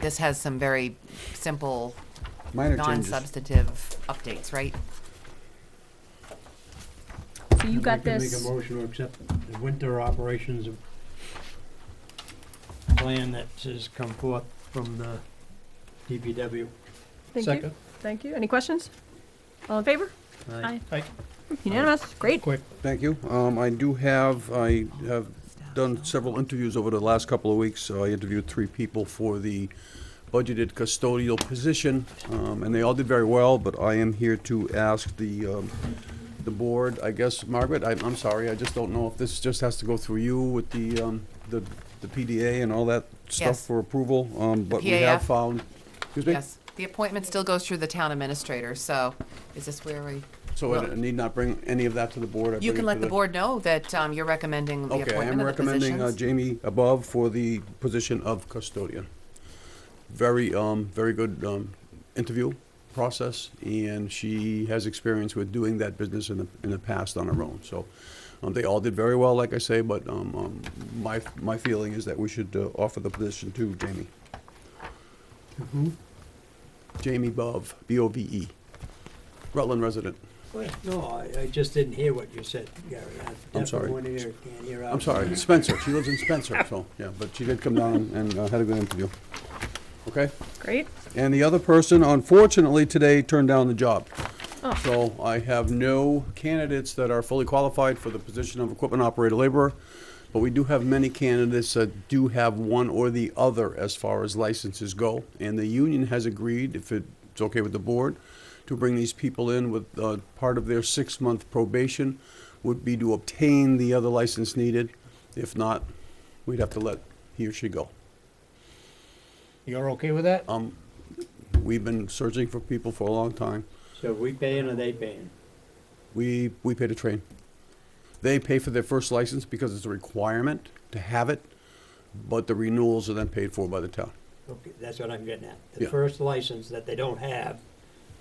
this has some very simple, Minor changes. non-substantive updates, right? So you got Make a this, motion to accept the winter operations plan that has come forth from the DPW. thank you, thank you. Any questions? All in favor? Aye. Unanimous, great. Quick. Thank you. Um, I do have, I have done several interviews over the last couple of weeks. So I interviewed three people for the budgeted custodial position, um, and they all did very well, but I am here to ask the, um, the board, I guess, Margaret, I'm, I'm sorry, I just don't know if this just has to go through you with the, um, the, the PDA and all that stuff Yes. for approval, um, but we have PAF. found, excuse me? Yes, the appointment still goes through the town administrator, so is this where we? So I need not bring any of that to the board? I You bring it can to let the board know that um, you're recommending the Okay, I am appointment of the recommending uh, positions. Jamie above for the position of custodian. Very, um, very good, um, interview process, and she has experience with doing that business in the, in the past on her own, so. Um, they all did very well, like I say, but, um, um, my, my feeling is that we should, uh, offer the position to Jamie. Jamie Bove, B-O-V-E, E. Rutland resident. Well, No, I, I just didn't hear what you said, Gary. I I'm sorry. definitely wanna hear, it. can't hear out. I'm sorry, Spencer, she lives in Spencer, so, yeah, but she did come down and, uh, had a good interview. Okay? Great, And the other person, unfortunately, today turned down the job. Oh. So I have no candidates that are fully qualified for the position of equipment operator laborer, but we do have many candidates that do have one or the other as far as licenses go. And the union has agreed, if it's okay with the board, to bring these people in with, uh, part of their six-month probation would be to obtain the other license needed. If not, we'd have to let he or she go. You're okay with that? Um, we've been searching for people for a long time. So we paying or they paying? We, we pay to train. They pay for their first license because it's a requirement to have it, but the renewals are then paid for by the town. Okay, that's what I'm getting at. The Yeah. first license that they don't have,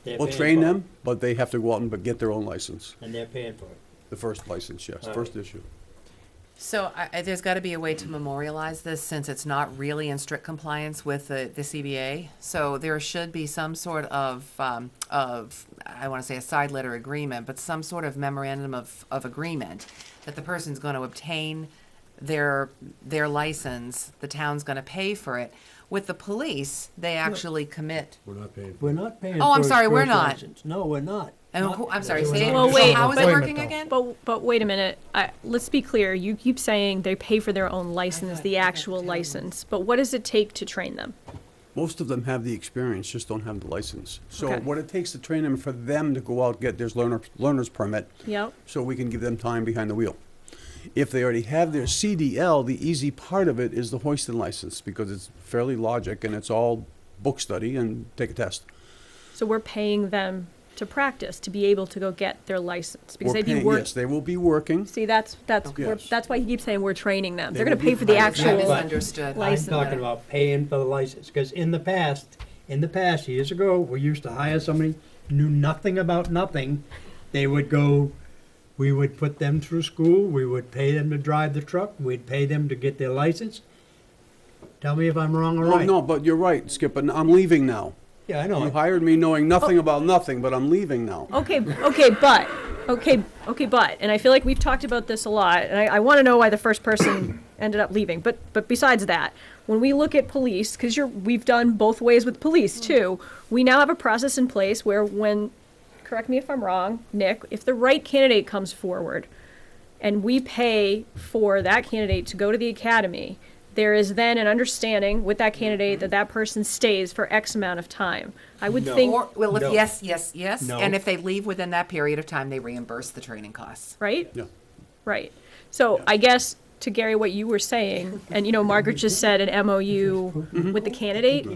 they're We'll paying train for it, them, but they have to go out and get their own license, And they're paying for it. the first license, yes, All first right. issue. So I, I, there's got to be a way to memorialize this since it's not really in strict compliance with the, the CBA. So there should be some sort of, um, of, I want to say a side letter agreement, but some sort of memorandum of, of agreement that the person's going to obtain their, their license, the town's going to pay for it. With the police, they actually commit. We're not paying. We're not paying. Oh, I'm for his sorry, we're first not. license. No, we're not. And Not- who, I'm sorry, we're say it. not. Well, wait, so how is it but- working again? but, but wait a minute, I, let's be clear, you keep saying they pay for their own license, thought the you had actual to. license, but what does it take to train them? Most of them have the experience, just don't have the license. So Okay. what it takes to train them, for them to go out, get their learner, learner's permit, Yep, so we can give them time behind the wheel. If they already have their CDL, the easy part of it is the hoisting license because it's fairly logic and it's all book study and take a test. so we're paying them to practice, to be able to go get their license, because We're they'd be paying- working. Yes, they will be working. See, that's, that's, Okay. we're- Yes. that's why he keeps saying we're training them. They They're gonna will be pay for the pilots. I actual, but- misunderstood. I'm license. talking about paying for the license, because in the past, in the past, years ago, we used to hire somebody, knew nothing about nothing. They would go, we would put them through school, we would pay them to drive the truck, we'd pay them to get their license. Tell me if I'm wrong or Well, right. no, but you're right, Skip, and I'm leaving now. Yeah, I You know. hired me knowing Oh. nothing about nothing, but I'm leaving now. okay, okay, but, okay, okay, but, and I feel like we've talked about this a lot, and I, I wanna know why the first person ended up leaving, but, but besides that, when we look at police, cause you're, we've done both ways with police too, we now have a process in place where when, correct me if I'm wrong, Nick, if the right candidate comes forward, and we pay for that candidate to go to the academy, there is then an understanding with that candidate that that person stays for X amount of time. I would No. think, Or, well, if No. yes, yes, yes, No. and if they leave within that period of time, they reimburse the training costs. right? Yeah. Right. So I guess to Gary, what you were saying, and you know, Margaret just said an MOU with the candidate.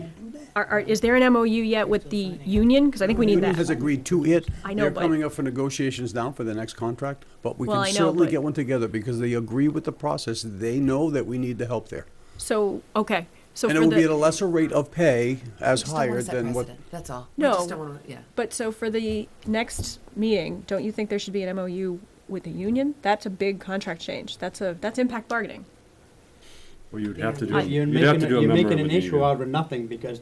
Are, are, is there an MOU yet with the union? Because I think we need Union has that. agreed to it. I know, They're but- coming up for negotiations now for the next contract, but we Well, can I know, certainly but- get one together because they agree with the process. They know that we need the help there. So, okay. So And it for will be at a the, lesser rate of pay as Just don't wanna hired set than what precedent, That's all. We No. just don't wanna- yeah. but so for the next meeting, don't you think there should be an MOU with the union? That's a big contract change. That's a, that's impact bargaining. Well, you'd have to do, You're you'd have making, to a- do a you're member making of an an issue evening. out of nothing because